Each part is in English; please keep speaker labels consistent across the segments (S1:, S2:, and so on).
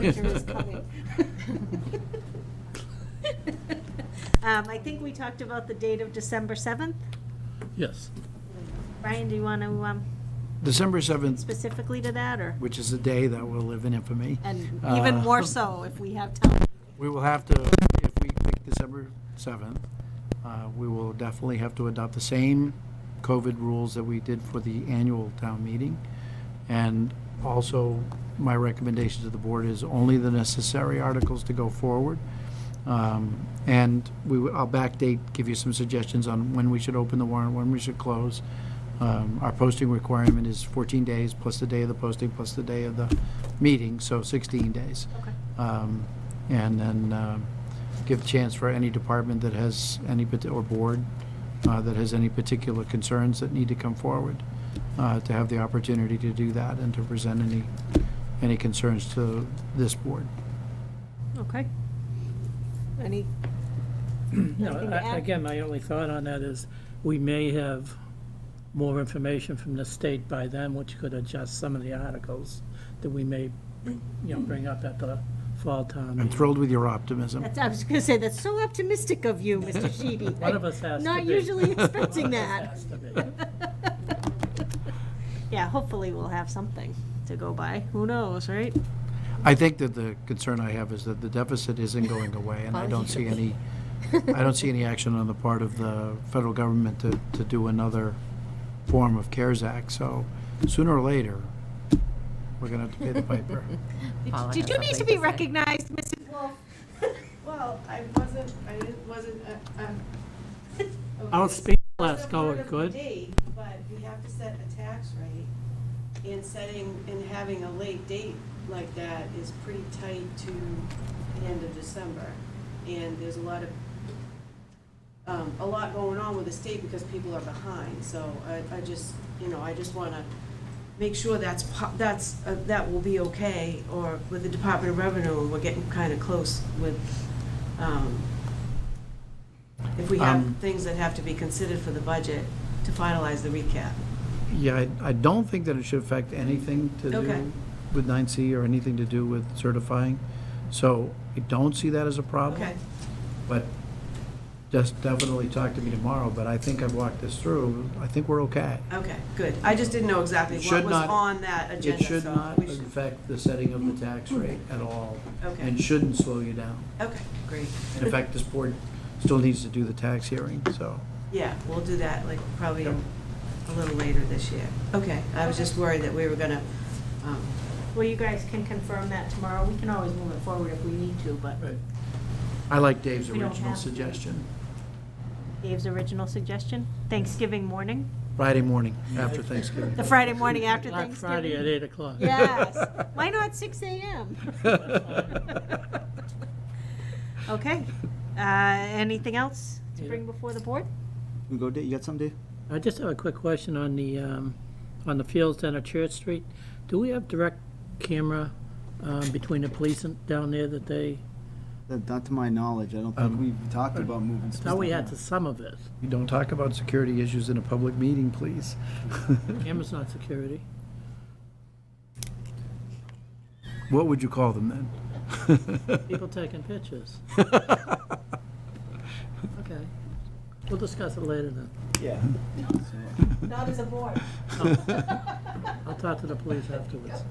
S1: Winter is coming. Um, I think we talked about the date of December 7th.
S2: Yes.
S1: Brian, do you want to
S3: December 7th,
S1: specifically to that, or?
S3: which is a day that will live in infamy.
S1: And
S3: Uh,
S1: even more so if we have time.
S3: We will have to, if we pick December 7th, uh, we will definitely have to adopt the same COVID rules that we did for the annual town meeting. And also, my recommendation to the board is only the necessary articles to go forward. Um, And we, will- I'll backdate, give you some suggestions on when we should open the warrant, when we should close. Um, Our posting requirement is 14 days, plus the day of the posting, plus the day of the meeting, so 16 days.
S1: Okay.
S3: Um, And then um, give chance for any department that has any, parti- or board uh, that has any particular concerns that need to come forward, uh, to have the opportunity to do that and to present any, any concerns to this board.
S1: Okay. Any,
S2: No,
S1: Anything to
S2: I-
S1: add?
S2: again, my only thought on that is, we may have more information from the state by then, which could adjust some of the articles that we may, you know, bring up at the fall town
S3: I'm
S2: meeting.
S3: thrilled with your optimism.
S1: that's, I was going to say, that's so optimistic of you, Mr. Sheedy.
S2: One of us has to
S1: Not
S2: be.
S1: usually expecting that.
S2: Has to be.
S1: Yeah, hopefully we'll have something to go by. Who knows, right?
S3: I think that the concern I have is that the deficit isn't going away, and I don't see any, I don't see any action on the part of the federal government to, to do another form of CARES Act, so sooner or later, we're gonna have to pay the piper.
S1: Did-
S4: Paula
S1: Did
S4: has
S1: you need to
S4: something
S1: be
S4: to say.
S1: recognized, Mrs. Wolf?
S5: Well, I wasn't, I didn't- wasn't, uh, um.
S2: I'll
S5: okay,
S2: speak
S5: so
S2: last,
S5: it's
S2: go
S5: part
S2: it,
S5: of the
S2: good?
S5: date, But we have to set a tax rate, and setting, and having a late date like that is pretty tight to the end of December. And there's a lot of, um, a lot going on with the state because people are behind, so I, I just, you know, I just wanna make sure that's, po- that's, uh, that will be okay, or with the Department of Revenue, we're getting kinda close with, um, if we have
S3: Um,
S5: things that have to be considered for the budget to finalize the recap.
S3: Yeah, I, I don't think that it should affect anything to
S5: Okay.
S3: do with 9C or anything to do with certifying, so I don't see that as a problem.
S5: Okay,
S3: But just definitely talk to me tomorrow, but I think I've walked this through, I think we're okay.
S5: okay, good. I just didn't know exactly
S3: It
S5: what
S3: should
S5: was
S3: not-
S5: on that
S3: It
S5: agenda,
S3: should
S5: so
S3: not
S5: we should, Hmm.
S3: affect the setting of the tax rate at all,
S5: Okay.
S3: and shouldn't slow you down.
S5: okay, great.
S3: In fact, this board still needs to do the tax hearing, so.
S5: Yeah, we'll do that, like, probably
S3: Yep.
S5: a little later this year. Okay, I was just worried that we were gonna, um,
S1: Well, you guys can confirm that tomorrow. We can always move it forward if we need to, but
S3: I like Dave's
S1: We don't
S3: original
S1: have to.
S3: suggestion,
S1: Dave's original suggestion, Thanksgiving morning,
S3: Friday morning after Thanksgiving.
S1: the Friday morning after
S2: Black Friday at
S1: Thanksgiving.
S2: 8 o'clock.
S1: Yes, why not six AM? Okay, uh, anything else to bring before the board?
S6: You go, Dave, you got some, Dave?
S2: I just have a quick question on the, um, on the fields down at Church Street. Do we have direct camera um, between the police and down there that they,
S6: That- Not to my knowledge, I don't think we've talked about moving
S2: I thought Um, we had
S6: stuff.
S2: to some of it.
S3: You don't talk about security issues in a public meeting, please.
S2: Camera's not security.
S3: What would you call them then?
S2: People taking pictures. Okay. We'll discuss it later then.
S6: Yeah.
S1: Not as a board.
S2: I'll talk to the police afterwards.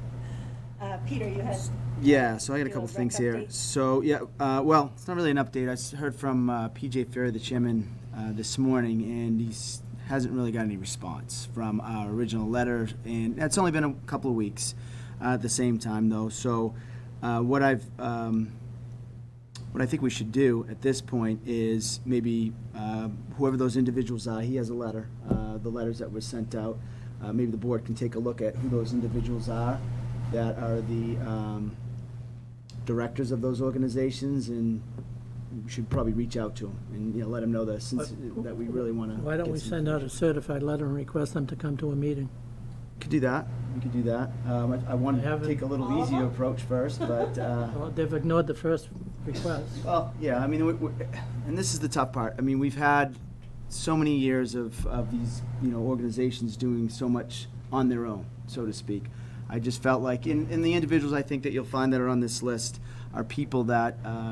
S1: Uh, Peter, you had,
S6: Yeah, so I got a couple
S1: Field rec
S6: things here.
S1: update.
S6: So, yeah, uh, well, it's not really an update. I s- heard from uh, PJ Ferry, the chairman, uh, this morning, and he's, hasn't really got any response from our original letter, and that's only been a couple of weeks uh, at the same time, though. So, uh, what I've, um, what I think we should do at this point is maybe uh, whoever those individuals are, he has a letter, uh, the letters that were sent out. Uh, Maybe the board can take a look at who those individuals are that are the um, directors of those organizations and we should probably reach out to them and, you know, let them know that since, that we really want to.
S2: Why don't we send out a certified letter and request them to come to a meeting?
S6: Could do that. We could do that. Um, I- I want
S2: They
S6: to
S2: haven't-
S6: take a little easier approach first, but. uh,
S2: Well, They've ignored the first request.
S6: Well, yeah, I mean, we- we- and this is the tough part. I mean, we've had so many years of, of these, you know, organizations doing so much on their own, so to speak. I just felt like, and, and the individuals I think that you'll find that are on this list are people that, uh,